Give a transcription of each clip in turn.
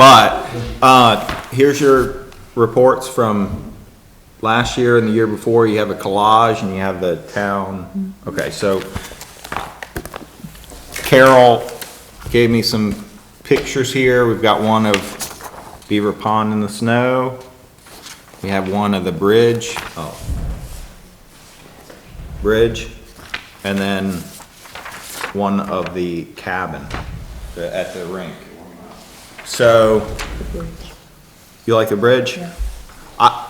But, uh, here's your reports from last year and the year before. You have a collage and you have the town. Okay, so Carol gave me some pictures here. We've got one of Beaver Pond in the snow. We have one of the bridge, oh. Bridge, and then one of the cabin the- at the rink. So, you like the bridge? Yeah. I,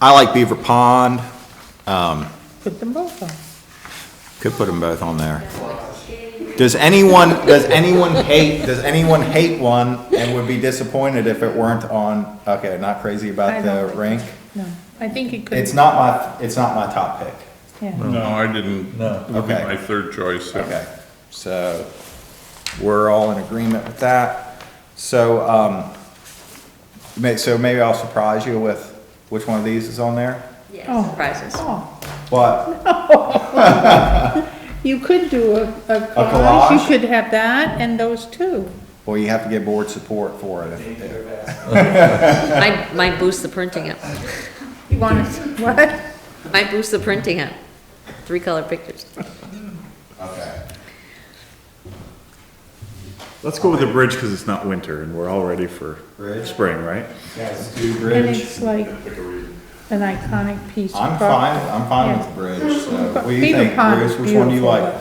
I like Beaver Pond, Put them both on. could put them both on there. Does anyone, does anyone hate, does anyone hate one and would be disappointed if it weren't on, okay, not crazy I about don't the think rink? No, I think it could. It's not my, it's not my top pick. Yeah. No, I didn't. No. Would be Okay. my third choice. yeah. Okay, so we're all in agreement with that. So, um, may, so maybe I'll surprise you with which one of these is on there, Oh. Yeah, surprises. Oh, but You could do a, a collage, collage? you could have that and those two. well, you have to get board support for it. if- if- Might, might boost the printing up. You want to, what? Might boost the printing up. Three color pictures. Okay. Let's go with the bridge because it's not winter and we're all ready for Bridge? spring, right? Guys, do And bridge. it's like an iconic piece. of I'm fine, property. I'm fine Yeah. with bridge, so what do you Beaver think, Pond Bruce, is which one do you beautiful, like?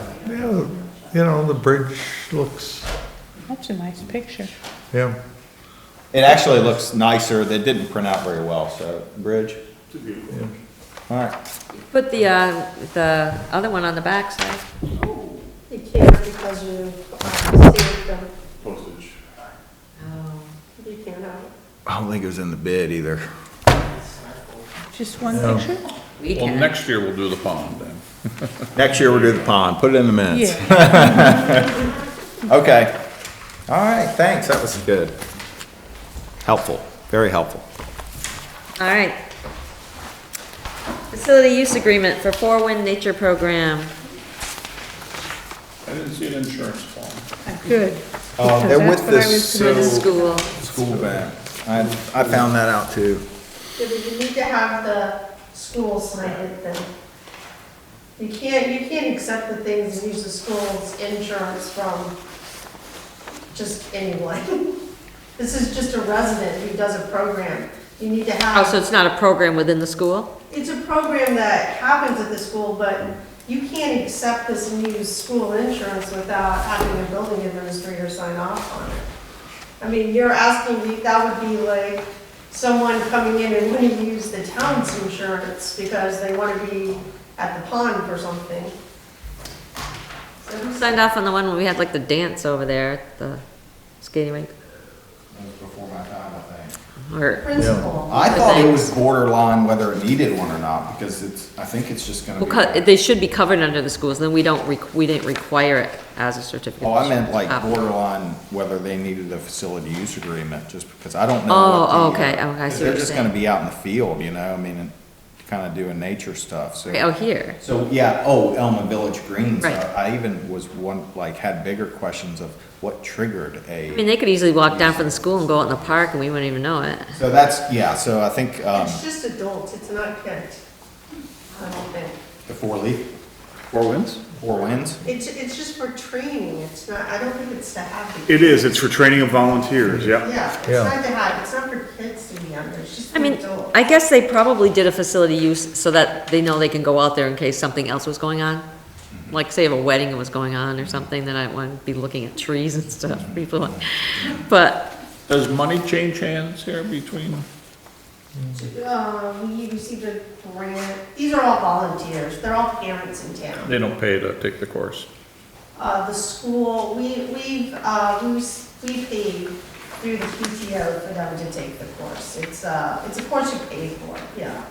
Yeah, you know, the bridge looks, That's a nice picture. yeah, It actually looks nicer, they didn't print out very well, so, bridge? Alright, Put the, uh, the other one on the back side. You can't because you uh, saved them, Postage. Oh, you can't have it. I don't think it was in the bid either. Just one picture? We Well, can. next year we'll do the pond then. Next year we'll do the pond, put it in the minutes. Yeah, Okay. All right, thanks, that was good. Helpful, very helpful. All right. Facility use agreement for Four Wind Nature Program. I didn't see an insurance form. good. Uh, they're Because with that's what I the was For So- the Oh. school. School band. I, I found that out too. You need to have the school sign it then. You can't, you can't accept the things and use the school's insurance from just anyone. This is just a resident who does a program. You need to Oh, have. so it's not a program within the school? It's a program that happens at the school, but you can't accept this and use school insurance without having a building administrator sign off on it. I mean, you're asking, me that would be like someone coming in and wanting to use the town's insurance because they want to be at the pond for something. Who signed off on the one where we had like the dance over there at the skating rink? That was before my time, I think. Or, Principal. I thought it was borderline whether it needed one or not, because it's, I think it's just gonna well, co- be. they should be covered under the schools, then we don't, req- we didn't require it as a certificate. Oh, I meant like Ah. borderline whether they needed a facility use agreement, just because I don't know. Oh, what the, uh, okay, okay, I see what They're you're just saying. gonna be out in the field, you know, I mean, and kinda doing nature stuff, so. Oh, here. So, yeah, oh, Elma Village Greens, uh, Right. I I even was one, like, had bigger questions of what triggered I mean, a, they could easily walk down from the school and go out in the park and we wouldn't even know it. so that's, yeah, so I think, um, It's just adults, it's not kids. I don't think. the four leaf, Four winds? four winds. It's, it's just for training, it's not, I don't think it's to have. the- It is, it's for training of volunteers, yeah. Yeah, it's Yeah. not to hide, it's not for kids to be under, it's just I for mean, adults. I guess they probably did a facility use so that they know they can go out there in case something else was going on. Like say if a wedding was going on or something, then I wouldn't be looking at trees and stuff, people, like- but, Does money change hands here between? Uh, we received a grant, these are all volunteers, they're all parents in town. They don't pay to take the course. Uh, the school, we, we've, uh, we, s- we paid through the PTO for them to take the course. It's, uh, it's a course you pay for, yeah.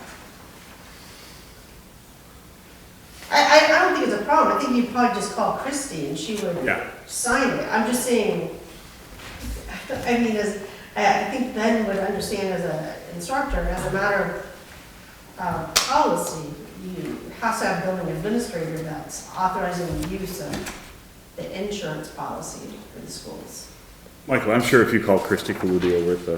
I, I, I don't think it's a problem, I think you'd probably just call Christie and she would Yeah. sign it. I'm just saying, I mean, as, I, I think Ben would understand as a instructor, as a matter of uh, policy, you have to have building administrator that's authorizing the use of the insurance policy for the schools. Michael, I'm sure if you call Christie Cludio with the